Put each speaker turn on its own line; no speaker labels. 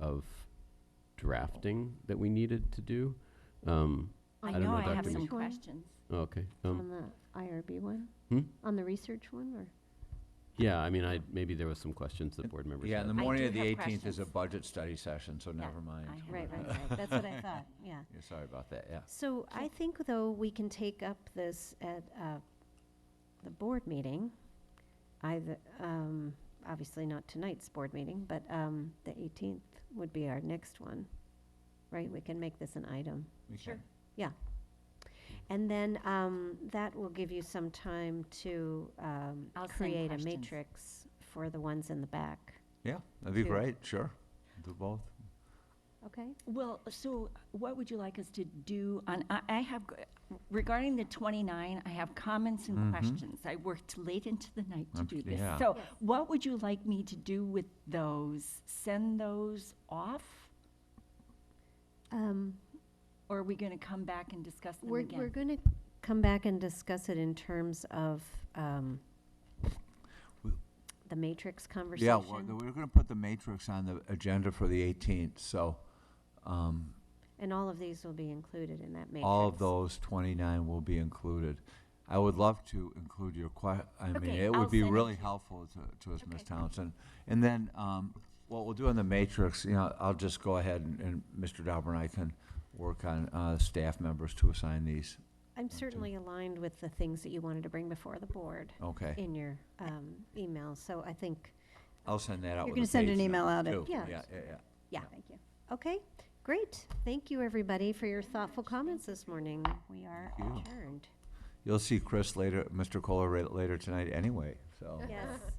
of drafting that we needed to do. Um,
I
don't
know
know,
I
Dr.
have some
Meek.
questions.
okay, um,
on the IRB one?
Hmm?
On the research one, or?
yeah, I mean, I, maybe there was some questions that board members
Yeah, and the
had.
I
morning
do
of the
have
18th is a
questions.
budget study session, so never mind.
I have
Right, right, right, that's what I thought, yeah.
Yeah, Sorry about that, yeah.
So I think, though, we can take up this at uh, the board meeting, either, um, obviously not tonight's board meeting, but um, the 18th would be our next one, right? We can make this an item.
We
Sure.
can-
And then um, that will give you some time to um,
I'll send
create a
questions.
matrix for the ones in the back,
Yeah, that'd be
Two.
great, sure. Do both.
okay?
Well, so what would you like us to do on, I, I have, g- regarding the 29, I have comments and
Mhm.
questions. I worked late into the night to
I'm-
do this.
yeah.
So
Yes.
what would you like me to do with those? Send those off?
Um,
Or are we going to come back and discuss them
We're,
again?
we're going to come back and discuss it in terms of um,
We-
the matrix
Yeah, we're,
conversation
we're gonna put the matrix on the agenda for the 18th, so, um,
and all of these will be included in that matrix.
all of those 29 will be included. I would love to include your que, I mean,
Okay,
it
I'll
would be
send it
really
to you.
helpful to, to us, Ms.
Okay.
Townsend. And then, um, what we'll do on the matrix, you know, I'll just go ahead and, and Mr. Dauber and I can work on, uh, staff members to assign these.
I'm certainly aligned with the things that you wanted to bring before the board
Okay,
in your um, email, so I think,
I'll send that out
You're
with a
gonna send
page
an
number,
email out at-
too.
Yeah.
Yeah, yeah, yeah.
yeah.
Thank you.
Okay, great. Thank you, everybody, for your thoughtful comments this morning. We are
Thank you.
adjourned.
You'll see Chris later, Mr. Kohler ra- later tonight anyway, so.
Yes.